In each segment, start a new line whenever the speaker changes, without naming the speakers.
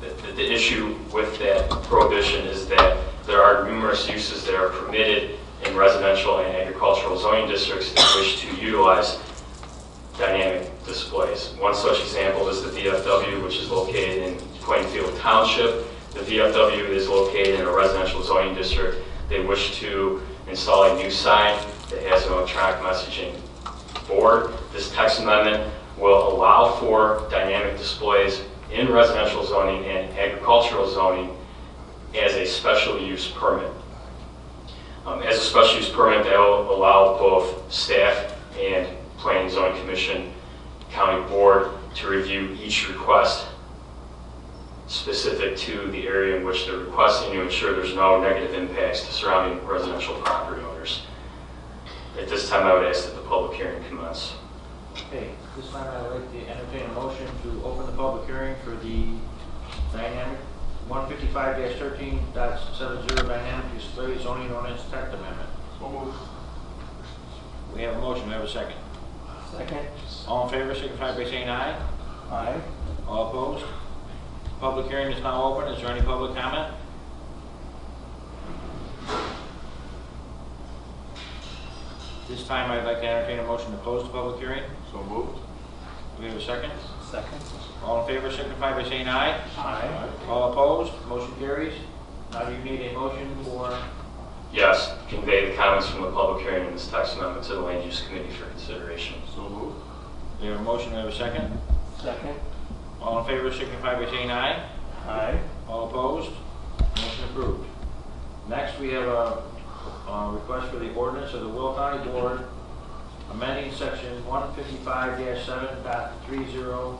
the issue with that prohibition is that there are numerous uses that are permitted in residential and agricultural zoning districts that wish to utilize dynamic displays. One such example is the VFW, which is located in Plainfield Township. The VFW is located in a residential zoning district. They wish to install a new sign that has an electronic messaging board. This text amendment will allow for dynamic displays in residential zoning and agricultural zoning as a special use permit. Um, As a special use permit, that will allow both staff and planning and zoning commission, county board to review each request specific to the area in which they're requesting to ensure there's no negative impacts to surrounding residential property owners. At this time, I would ask that the public hearing commence.
Okay, this time I'd like to entertain a motion to open the public hearing for the dynamic, 155-13.70 dynamic display zoning ordinance text amendment. We have a motion, we have a second.
Second.
All in favor, signify by saying aye.
Aye.
All opposed? Public hearing is now open, is there any public comment? This time I'd like to entertain a motion to close the public hearing.
So moved.
Do we have a second?
Second.
All in favor, signify by saying aye.
Aye.
All opposed, motion carries. Now you need a motion for,
Yes, convey the comments from the public hearing in this text amendment to the land use committee for consideration.
So moved.
we have a motion, we have a second.
Second.
All in favor, signify by saying aye.
Aye.
All opposed, motion approved. Next, we have a uh, request for the ordinance of the Will County Board amending section 155-7.30,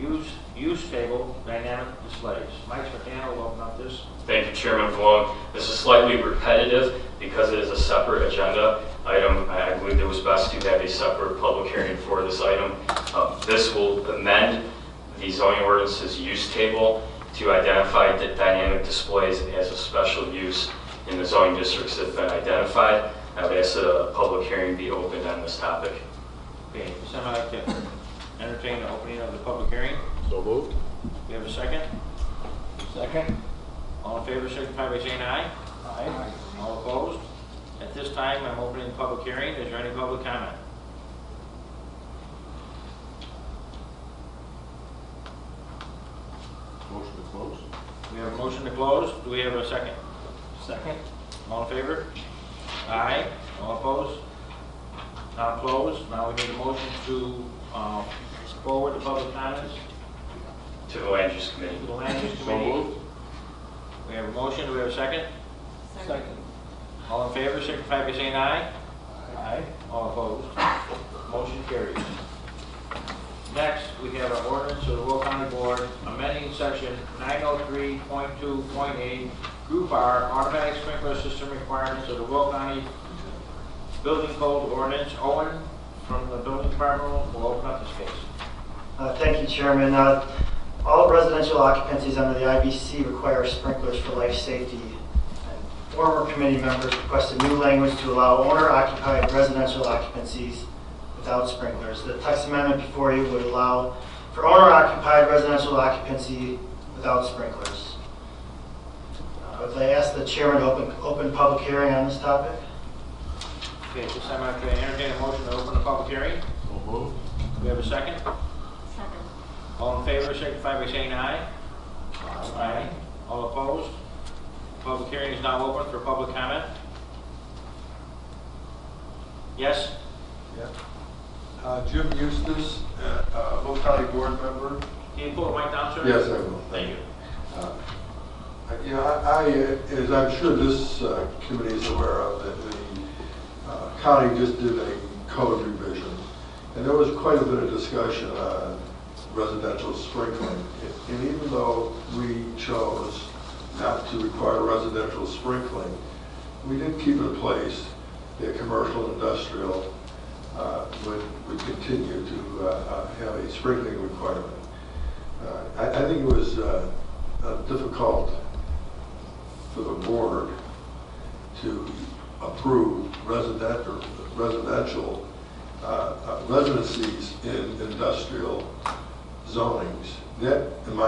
use, use table dynamic displays. Mike McDaniel will open up this.
Thank you, Chairman Vaughn. This is slightly repetitive because it is a separate agenda item. I I believe it was best to have a separate public hearing for this item. Uh, This will amend the zoning ordinance's use table to identify the dynamic displays as a special use in the zoning districts that have been identified. I would ask that a public hearing be opened on this topic.
Okay, somebody like to entertain the opening of the public hearing.
So moved.
We have a second.
Second.
All in favor, signify by saying aye.
Aye.
All opposed? At this time, I'm opening the public hearing. Is there any public comment?
Motion to close.
We have a motion to close. Do we have a second?
Second.
All in favor? Aye. All opposed? Now closed. Now we need a motion to uh, forward the public comments
To the land use
to
committee.
the land use
So
committee.
moved.
We have a motion. Do we have a second?
Second.
All in favor, signify by saying aye.
Aye.
All opposed? Motion carries. Next, we have an ordinance of the Will County Board amending section 903.2.8 Group R Automatic Sprinkler System Requirements of the Will County Building Code Ordinance. Owen from the Building Department will open up this case.
Uh, Thank you, Chairman. Uh, All residential occupancies under the IBC require sprinklers for life safety. And Former committee members requested new language to allow owner-occupied residential occupancies without sprinklers. The text amendment before you would allow for owner-occupied residential occupancy without sprinklers. Uh, Would I ask the chairman to open, open public hearing on this topic?
Okay, at this time I can entertain a motion to open the public hearing.
So moved.
Do we have a second?
Second.
All in favor, signify by saying aye. Aye. All opposed? Public hearing is now open for public comment. Yes?
Uh, Jim Eustace, uh, uh, Will County Board member.
Can you pull the mic down, sir?
Yes, I will.
Thank you.
Uh, Yeah, I, I, uh, as I'm sure this uh, committee is aware of, that the uh, county just did a code revision, and there was quite a bit of discussion on residential sprinkling. And even though we chose not to require residential sprinkling, we did keep in place that commercial, industrial uh, would, would continue to uh, uh, have a sprinkling requirement. Uh, I, I think it was uh, uh, difficult for the board to approve resident, or residential, uh, uh, residencies in industrial zonings. That, in my